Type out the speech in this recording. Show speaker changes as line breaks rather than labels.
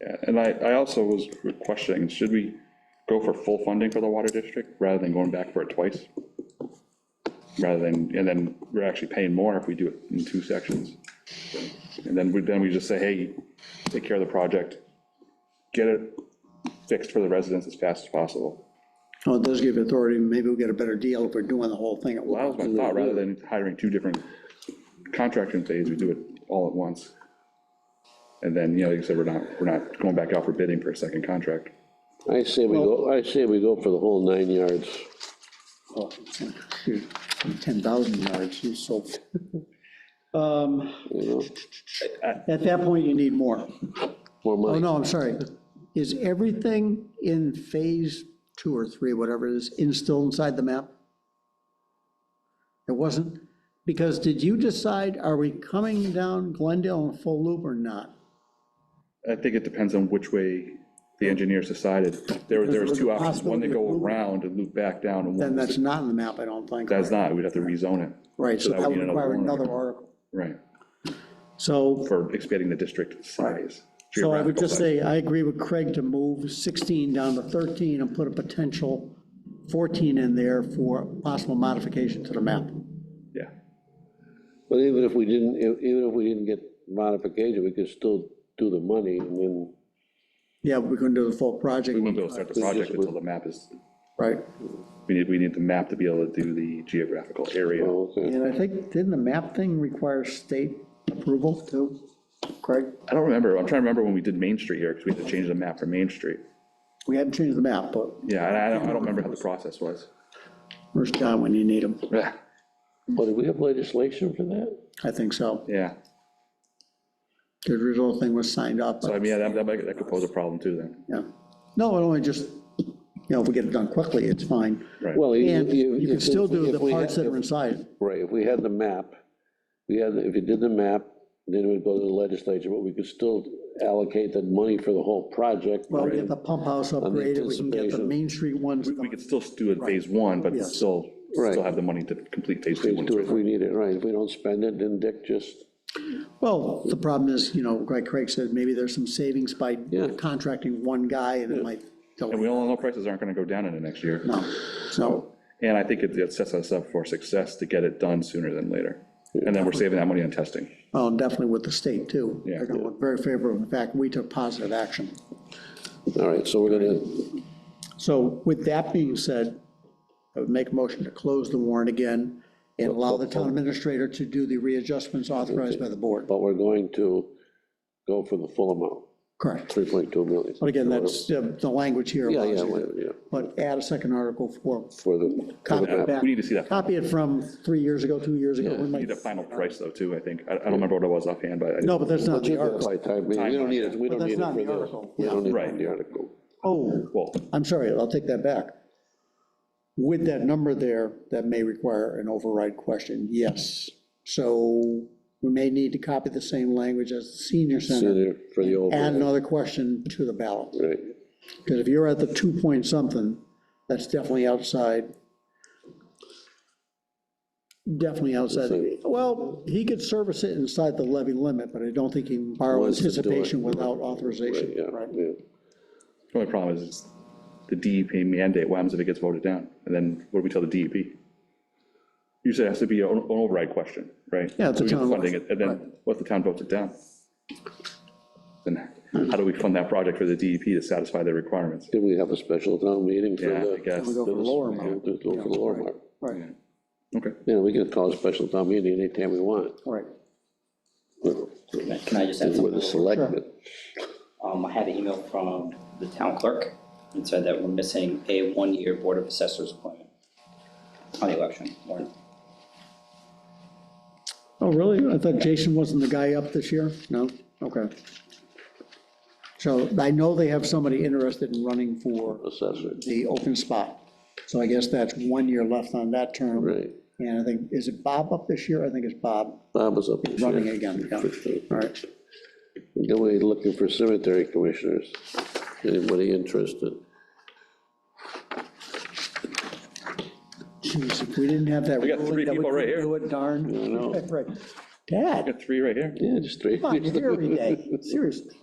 And I, I also was questioning, should we go for full funding for the water district rather than going back for it twice? Rather than, and then we're actually paying more if we do it in two sections. And then we, then we just say, hey, take care of the project, get it fixed for the residents as fast as possible.
Well, it does give authority, maybe we'll get a better deal if we're doing the whole thing at
That was
once.
my thought, rather than hiring two different contracting phase, we do it all at once. And then, you know, like you said, we're not, we're not going back out for bidding for a second contract.
I say we go, I say we go for the whole nine yards.
Oh, shoot, 10,000 yards, you sold. Um,
You know,
At that point, you need more.
more
Oh,
money.
no, I'm sorry. Is everything in phase two or three, whatever it is, in- still inside the map? It wasn't? Because did you decide, are we coming down Glendale in full loop or not?
I think it depends on which way the engineers decided. There were, there was two options, one to go around and loop back down, and
Then
one,
that's not in the map, I don't think.
that's not, we'd have to rezone it.
Right, so
that would
that would
be another
require
warrant
another
article.
article.
Right,
So,
for expanding the district size.
so I would
geographical
just
size.
say, I agree with Craig to move 16 down to 13 and put a potential 14 in there for possible modification to the map.
Yeah,
But even if we didn't, e- even if we didn't get modification, we could still do the money and then,
Yeah, we're going to do the full project,
we wouldn't be able to start the project until the map is,
right?
we need, we need the map to be able to do the geographical area.
oh, okay.
And I think, didn't the map thing require state approval too, Craig?
I don't remember, I'm trying to remember when we did Main Street here, because we had to change the map for Main Street.
We hadn't changed the map, but
Yeah, and I don't, I don't remember how the process was.
where's John when you need him?
Yeah,
But do we have legislation for that?
I think so.
yeah,
The original thing was signed up,
so I
but,
mean, yeah, that, that might- that could pose a problem too then,
yeah. No, it only just, you know, if we get it done quickly, it's fine.
right?
Well, you-
And
you-
you can
if-
still do
if
the
we had-
parts that are inside.
Right, if we had the map, we had, if you did the map, then it would go to the legislature, but we could still allocate that money for the whole project.
Well, we get the pump house upgraded, we can get the
anticipation.
Main Street ones.
We could still do it phase one, but
Yes.
still,
Right.
still have the money to complete phase two.
Let's
when
do it
it's
If we need it, right, if we don't spend it, then Dick just,
Well, the problem is, you know, like Craig said, maybe there's some savings by
Yeah.
contracting one guy and it might,
And we all know prices aren't gonna go down in the next year.
no, so.
And I think it it sets us up for success to get it done sooner than later. And then we're saving that money on testing.
Well, and um, definitely with the state, too.
Yeah.
They're going to look very favorable. In fact, we took positive action.
all right, so we're gonna,
So with that being said, I would make a motion to close the warrant again and allow the town administrator to do the readjustments authorized by the board.
but we're going to go for the full amount,
Correct.
3.2 million.
But again, that's, uh, the language here
Yeah, yeah,
allows
yeah,
you to, but add a second article for,
for the, for
copy
the
it
map.
back.
We need to see that.
Copy it from three years ago, two years ago. We
We
might-
Need a final price though, too, I think. I I don't remember what it was offhand, but. I-
No, but that's not the article.
By time, we we don't need it, we
But
don't
that's
need it
not
for
the
the,
article.
we don't need it for
Right.
the article.
Oh,
Well,
I'm sorry, I'll take that back. With that number there, that may require an override question, yes. So we may need to copy the same language as the senior
See
center,
there for the
add
override,
another question to the ballot.
right,
Because if you're at the two point something, that's definitely outside. Definitely outside, well, he could service it inside the levy limit, but I don't think he can borrow
Wants to do it.
anticipation without authorization.
yeah, yeah.
the only problem is it's the DEP mandate, what happens if it gets voted down? And then what do we tell the DEP? You said it has to be an an override question, right?
Yeah, it's
So
a
we get the
town-
Funding it, and then what if the town votes it down? Then how do we fund that project for the DEP to satisfy their requirements?
Then we have a special town meeting for
Yeah, I
the.
guess.
We go for the lower amount,
We'll do it for the lower mark.
right,
Okay.
You know, we can call a special town meeting anytime we want.
right.
With
Can I just add
the
something?
selectmen.
Um, I had an email from the town clerk and said that we're missing a one-year Board of Assessors appointment on the election warrant.
Oh, really? I thought Jason wasn't the guy up this year? No? Okay. So I know they have somebody interested in running for
Assessor,
the open spot. So I guess that's one year left on that term.
right.
And I think, is it Bob up this year? I think it's Bob
Bob was up.
running again. Yeah. All right.
Then we're looking for cemetery commissioners. Anybody interested?
Jeez, if we didn't have that.
We got three
ruling that
people
couldn't
right here.
Do it, darn.
know.
Right. Dad,
Got three right here.
Yeah, just three.
come on, you're here every day, seriously.